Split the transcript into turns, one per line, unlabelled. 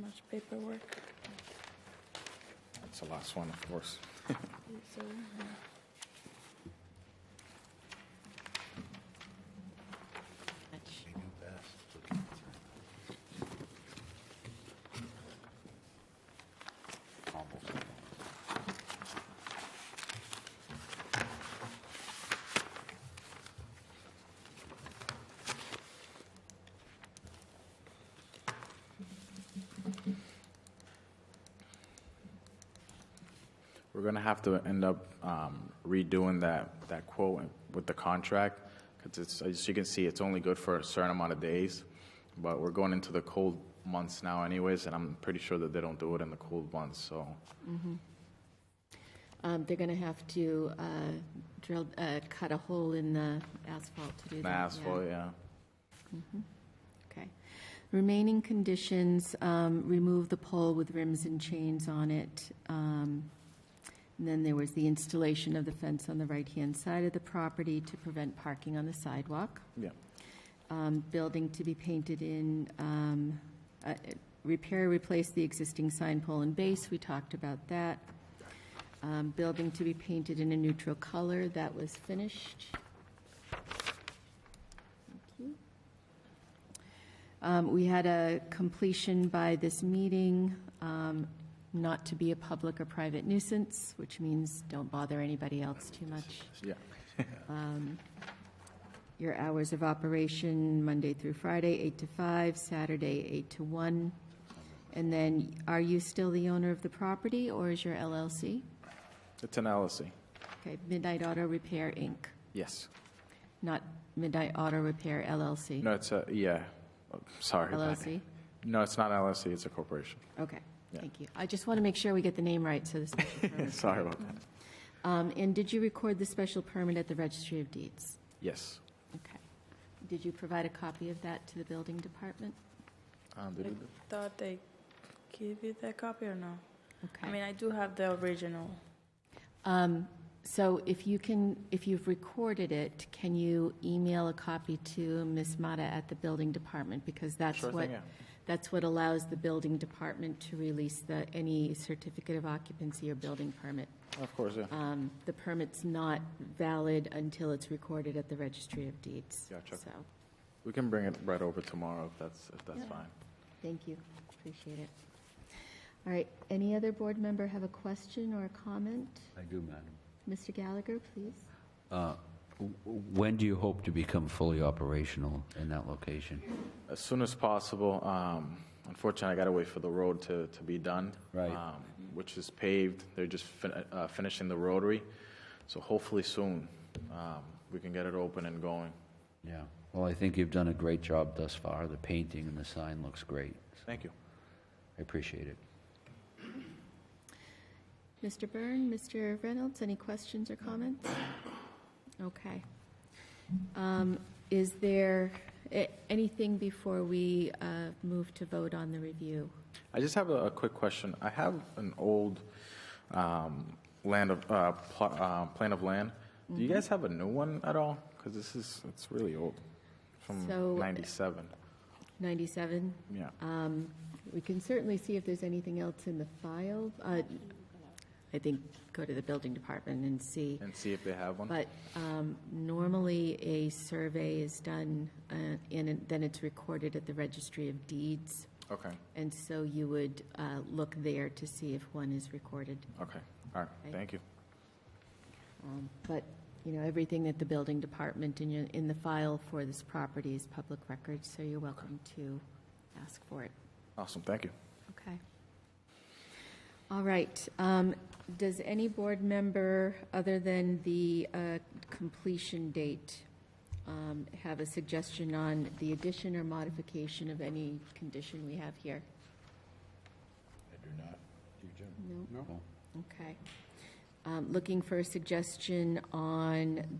much paperwork.
That's the last one, of course.
So,
We're gonna have to end up um, redoing that, that quote with the contract, because it's, as you can see, it's only good for a certain amount of days, but we're going into the cold months now anyways, and I'm pretty sure that they don't do it in the cold months, so.
Um, They're going to have to uh, drill, uh, cut a hole in the asphalt to do
The
that. yeah.
asphalt, yeah.
Okay. Remaining conditions, um, remove the pole with rims and chains on it. Um, And then there was the installation of the fence on the right-hand side of the property to prevent parking on the sidewalk.
Yeah.
Um, Building to be painted in, um, uh, repair, replace the existing sign pole and base, we talked about that. Um, Building to be painted in a neutral color, that was finished. Thank you. Um, We had a completion by this meeting, um, not to be a public or private nuisance, which means don't bother anybody else too much.
Yeah.
Your hours of operation, Monday through Friday, 8 to 5, Saturday, 8 to 1. And then, are you still the owner of the property, or is your LLC?
It's an LLC,
Okay, Midnight Auto Repair, Inc.,
yes.
not Midnight Auto Repair LLC.
No, it's a, yeah, Oh, sorry. but-
LLC?
No, it's not LLC, it's a corporation.
Okay,
Yeah.
thank you. I just want to make sure we get the name right, so the special permit.
Sorry about that.
Um, And did you record the special permit at the Registry of Deeds?
Yes.
Okay. Did you provide a copy of that to the building department?
Um, did
I
we do-
thought they give you the copy or no? I
Okay.
mean, I do have the original.
Um, So if you can, if you've recorded it, can you email a copy to Ms. Mata at the building department? Because that's
Sure
what,
thing, yeah.
that's what allows the building department to release the, any certificate of occupancy or building permit.
Of course, yeah.
Um, The permit's not valid until it's recorded at the Registry of Deeds.
Gotcha.
So,
We can bring it right over tomorrow if that's, if that's
Yeah.
fine.
Thank you, appreciate it. All right, any other board member have a question or a comment?
I do, madam.
Mr. Gallagher, please.
Uh, w- w- When do you hope to become fully operational in that location?
As soon as possible. Um, Unfortunately, I got to wait for the road to, to be done.
Right.
um, Which is paved. They're just fin- uh, finishing the rotary. So hopefully soon, um, we can get it open and going.
Yeah, well, I think you've done a great job thus far. The painting and the sign looks great.
Thank you.
I appreciate it.
Mr. Byrne, Mr. Reynolds, any questions or comments? Okay. Um, Is there a- anything before we uh, move to vote on the review?
I just have a, a quick question. I have an old um, land of, uh, pl- uh, plan of land. Do
Mm-hmm.
you guys have a new one at all? Because this is, it's really old, from
So-
97.
97?
Yeah.
Um, We can certainly see if there's anything else in the file. Uh, I think go to the building department and see.
And see if they have one.
But um, normally, a survey is done, uh, and it- then it's recorded at the Registry of Deeds,
Okay,
and so you would uh, look there to see if one is recorded.
okay. All right,
Okay.
thank you.
Um, But, you know, everything that the building department in your, in the file for this property is public record, so you're welcome to ask for it.
Awesome, thank you.
Okay. All right. um, Does any board member, other than the uh, completion date, um, have a suggestion on the addition or modification of any condition we have here? I do not. You, Jim? No?
No.
Okay. Um, Looking for a suggestion on